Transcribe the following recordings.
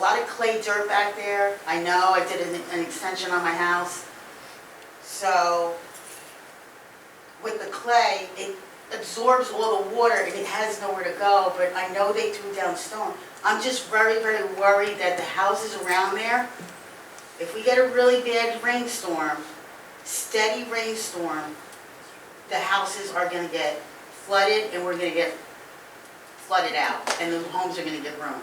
lot of clay dirt back there. I know, I did an, an extension on my house. So with the clay, it absorbs all the water and it has nowhere to go, but I know they threw down stone. I'm just very, very worried that the houses around there, if we get a really bad rainstorm, steady rainstorm, the houses are gonna get flooded and we're gonna get flooded out and the homes are gonna get ruined.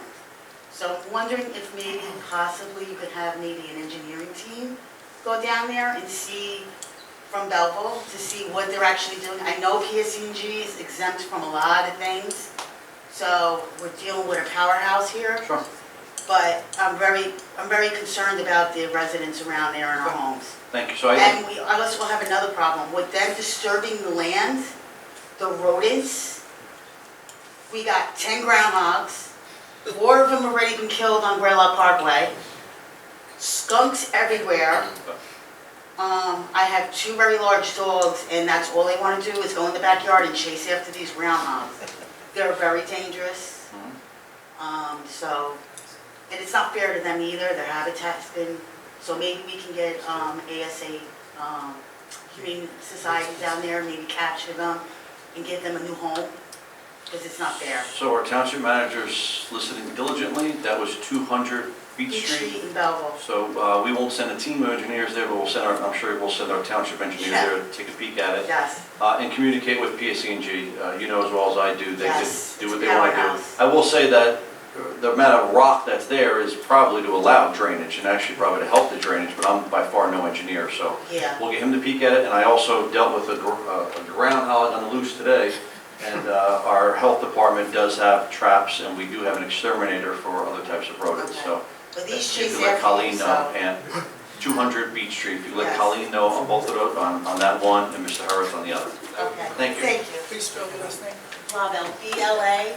So I'm wondering if maybe possibly you could have maybe an engineering team go down there and see from Belleville to see what they're actually doing. I know PSCNG is exempt from a lot of things, so we're dealing with a powerhouse here. Sure. But I'm very, I'm very concerned about the residents around there in our homes. Thank you. So I think, And we also have another problem, with them disturbing the land, the rodents. We got ten groundhogs, four of them already been killed on Graylock Parkway, skunks everywhere. Um, I have two very large dogs, and that's all they wanna do is go in the backyard and chase after these groundhogs. They're very dangerous, Mm-hmm. um, so, and it's not fair to them either, their habitat's been so maybe we can get um, ASA, um, Humane Society down there, maybe capture them and get them a new home, because it's not fair. so our township manager's listening diligently. That was 200 Beach Each Street. street in Belleville. So uh, we won't send a team of engineers there, but we'll send our, I'm sure we'll send our township engineer Yeah. there to take a peek at it Yes, uh, and communicate with PSCNG. Uh, You know as well as I do, they can Yes, do it's what they want to powerhouse. do. I will say that the amount of rock that's there is probably to allow drainage and actually probably to help the drainage, but I'm by far no engineer, so yeah. We'll get him to peek at it, and I also dealt with a gr- uh, a groundhog on the loose today, and uh, our health department does have traps, and we do have an exterminator for other types of rodents, so. But these if you streets let are Colleen full, know, so. And 200 Beach Street, if you let Yes. Colleen know on both of those, on on that one, and Mr. Harris on the other. Okay. Thank you. Thank you. Please spell the last name. Blavel, B-L-A-U-V-E-L-T.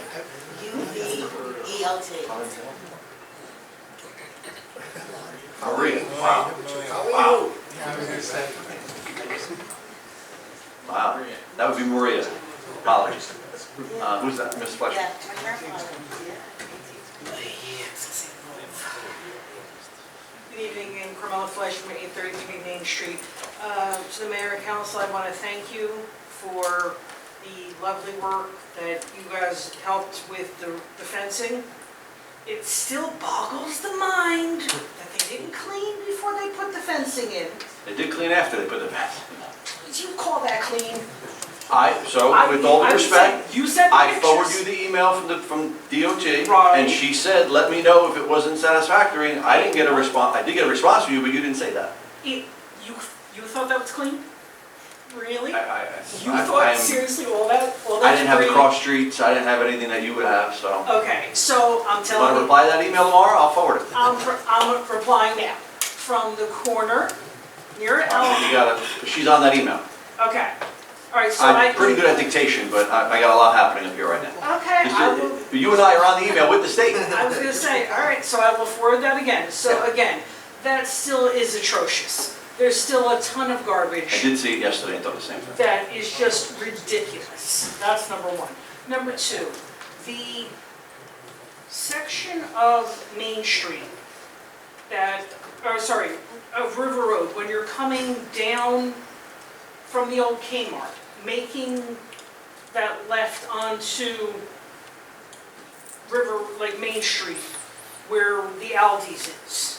Maria, wow, Wow. wow. That would be Maria. Apologies. Uh, Who's that, Ms. Fletcher? Yeah, my grandfather, yeah. Good evening, and Carmela Flesh from 833 Main Street. Uh, To the mayor and council, I want to thank you for the lovely work that you guys helped with the the fencing. It still boggles the mind that they didn't clean before they put the fencing in. They did clean after they put the bath. Would you call that clean? I, so with all I- due I would respect, say You sent the I pictures. forwarded you the email from the, from DOT, Right. and she said, let me know if it wasn't satisfactory, and I didn't get a response, I did get a response from you, but you didn't say that. It- You, you thought that was clean? Really? I, I, You I- thought I'm- seriously all that, all that I didn't have the debris? cross streets, I didn't have anything that you would have, so. Okay, so I'm You wanna telling you, reply to that email tomorrow, I'll forward it. I'm, re- I'm replying now, from the corner near You Elm. gotta, she's on that email. Okay, all right, so I. I'm pretty good at dictation, but I, I got a lot happening up here right now. Okay, I will, But You and I are on the email with the state. I was gonna say, all right, so I will forward that again. So Yeah. again, that still is atrocious. There's still a ton of I garbage did see it yesterday and thought the same thing. that is just ridiculous. That's number one. Number two, the section of Main Street that, or sorry, of River Road, when you're coming down from the old Kmart, making that left onto River, like Main Street, where the Aldi's is.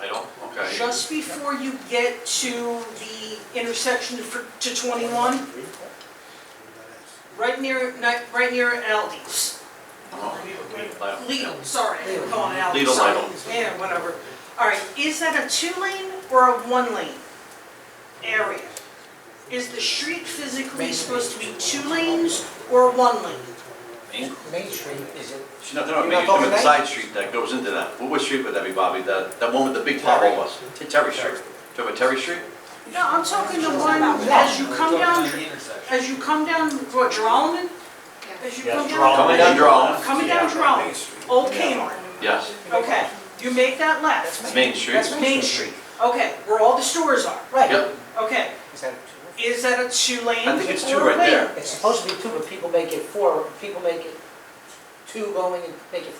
I don't, okay. Just before you get to the intersection for, to 21, right near, ni- right near Aldi's. Oh, I don't- Lidl, sorry, I'm calling it out. Lidl, sorry. Lidl. Yeah, whatever. All right, is that a two-lane or a one-lane area? Is the street physically supposed to be two lanes or one lane? Main Main Street, is it? She's not, they're not You're making it to not talking the about- side street that goes into that. What what street would that be, Bobby? That, that one with the big Terry. pothole was? T- Terry Street. Talking about Terry Street? No, I'm talking the one, as you come down, as you come down, what, Jerome? As you come down, Coming down Drawn? coming down Jerome, old Kmart, Yes. okay, you make that left. Main Street? That's Main Street, okay, where all the stores are, Yep. okay. Is that two? Is that a two-lane? I think it's two or a right lane? there. It's supposed to be two, but people make it four, people make it two going and make it